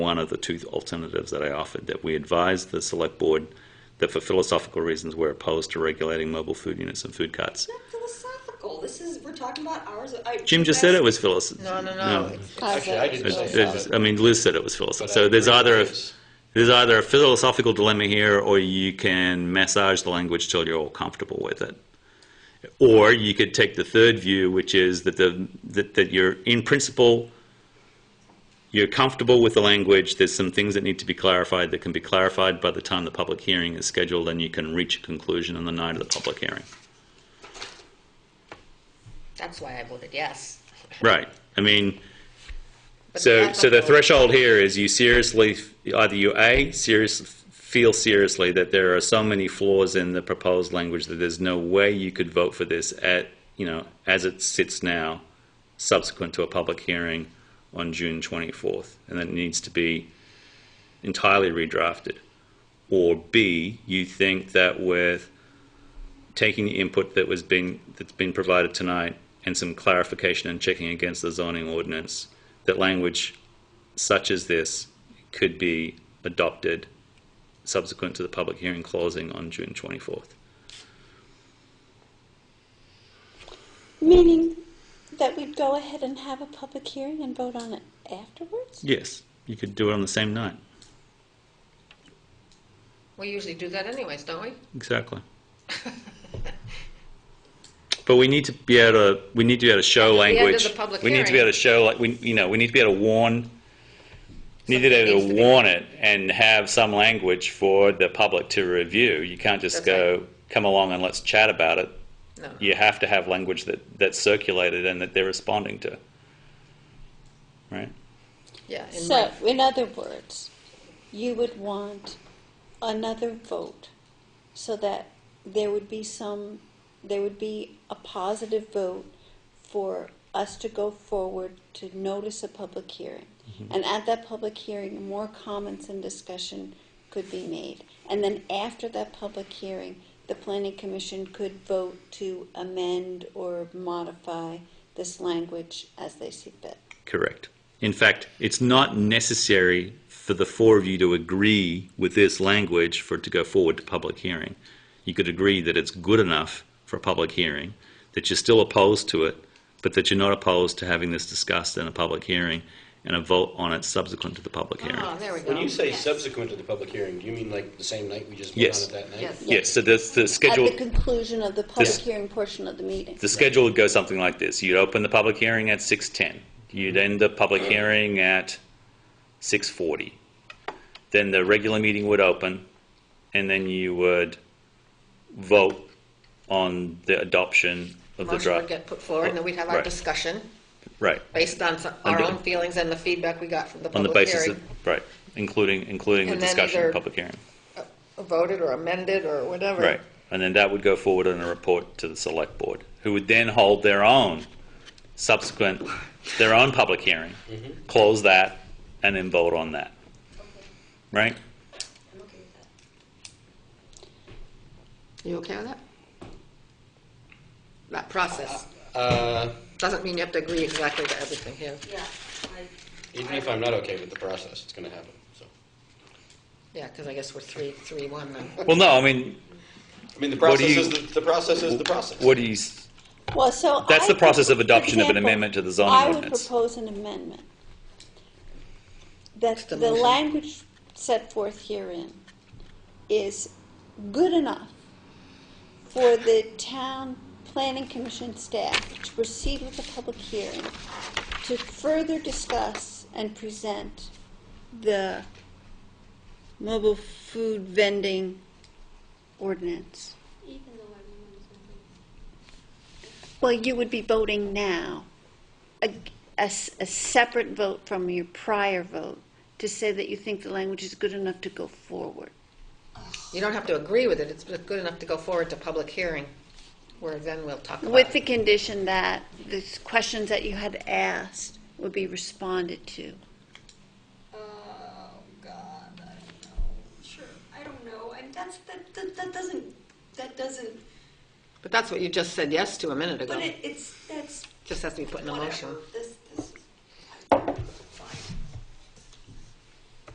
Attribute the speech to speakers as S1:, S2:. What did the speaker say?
S1: one of the two alternatives that I offered, that we advise the select board that for philosophical reasons, we're opposed to regulating mobile food units and food carts.
S2: Not philosophical. This is we're talking about hours. Of, I,
S1: Jim just said it was philosophical.
S3: No, no, no. It's- it's-
S4: Actually, I didn't know about it.
S1: I mean, Liz said it was philosophical.
S4: But
S1: So
S4: I
S1: there's
S4: agree
S1: either a,
S4: with Liz.
S1: there's either a philosophical dilemma here, or you can massage the language till you're all comfortable with it. Or you could take the third view, which is that the that, that you're in principle you're comfortable with the language. There's some things that need to be clarified that can be clarified by the time the public hearing is scheduled, and you can reach a conclusion on the night of the public hearing.
S3: That's why I voted yes.
S1: Right. I mean,
S3: But
S1: so
S3: that's
S1: so the
S3: all.
S1: threshold here is you seriously either you a serious feel seriously that there are so many flaws in the proposed language that there's no way you could vote for this at you know as it sits now, subsequent to a public hearing on June 24th, and that it needs to be entirely redrafted, or b you think that with taking the input that was being that's been provided tonight and some clarification and checking against the zoning ordinance, that language such as this could be adopted subsequent to the public hearing closing on June 24th.
S5: Meaning that we'd go ahead and have a public hearing and vote on it afterwards?
S1: Yes, you could do it on the same night.
S3: We usually do that anyways, don't we?
S1: Exactly. But we need to be able to, we need to be able to show
S3: At the end of
S1: language.
S3: the public
S1: We need to be
S3: hearing.
S1: able to show, like, we, you know, we need to be able to warn, need to be
S3: Something
S1: able
S3: needs
S1: to
S3: to be-
S1: warn it and have some language for the public to review. You can't just
S3: That's
S1: go, come along and let's chat about it.
S3: No.
S1: You have to have language that, that's circulated and that they're responding to. Right?
S3: Yeah. in
S5: So,
S3: my-
S5: in other words, you would want another vote so that there would be some, there would be a positive vote for us to go forward to notice a public hearing.
S3: Mm-hmm.
S5: And at that public hearing, more comments and discussion could be made. And then after that public hearing, the planning commission could vote to amend or modify this language as they see fit.
S1: Correct. In fact, it's not necessary for the four of you to agree with this language for it to go forward to public hearing. You could agree that it's good enough for a public hearing, that you're still opposed to it, but that you're not opposed to having this discussed in a public hearing and a vote on it subsequent to the public hearing.
S3: Oh, there we
S4: When
S3: go.
S4: you say subsequent to the public hearing, do you mean like the same night we just voted
S1: Yes.
S4: on it that night?
S3: Yes.
S1: Yes, so that's the schedule.
S5: At the conclusion of the public
S1: This-
S5: hearing portion of the meeting.
S1: The schedule would go something like this. You'd open the public hearing at 6:10. You'd
S3: Mm-hmm.
S1: end the public hearing at 6:40. Then the regular meeting would open, and then you would vote on the adoption of the
S3: Motion would
S1: draft.
S3: get put forward, and then we'd have our
S1: Right.
S3: discussion
S1: Right,
S3: based on some- our
S1: Under-
S3: own feelings and the feedback we got from the
S1: on the
S3: public
S1: basis of,
S3: hearing.
S1: right, including, including the
S3: And then
S1: discussion of the
S3: either-
S1: public hearing.
S3: Voted or amended or whatever.
S1: Right. And then that would go forward in a report to the select board, who would then hold their own subsequent, their own public hearing,
S4: Mm-hmm.
S1: close that, and then vote on that. Right?
S3: You okay with that? That process.
S4: Uh,
S3: Doesn't mean you have to agree exactly to everything here.
S2: Yeah, I,
S4: even if I'm not okay with the process, it's going to happen. So,
S3: Yeah, because I guess we're three, three, one then.
S1: Well, no, I mean,
S4: I mean, the
S1: What do
S4: process
S1: you-
S4: is the, the process is the process.
S1: what do you, s-
S5: Well, so
S1: That's
S5: I
S1: the process
S5: would-
S1: of adoption
S5: for
S1: of an
S5: example,
S1: amendment to the zoning
S5: I would
S1: ordinance.
S5: propose an amendment. That
S3: It's the
S5: the
S3: motion.
S5: language set forth herein is good enough for the town planning commission staff to proceed with the public hearing to further discuss and present the mobile food vending ordinance.
S2: even though everyone is in favor.
S5: Well, you would be voting now, a, a s- a separate vote from your prior vote, to say that you think the language is good enough to go forward.
S3: You don't have to agree with it, it's good enough to go forward to public hearing, where then we'll talk about
S5: With the
S3: it.
S5: condition that the s- questions that you had asked would be responded to.
S2: Oh God, I don't know. Sure, I don't know. And that's that. That, that doesn't. That doesn't.
S3: But that's what you just said yes to a minute ago.
S2: But it, it's that's
S3: Just has to be put in a
S2: whatever.
S3: motion.
S2: The,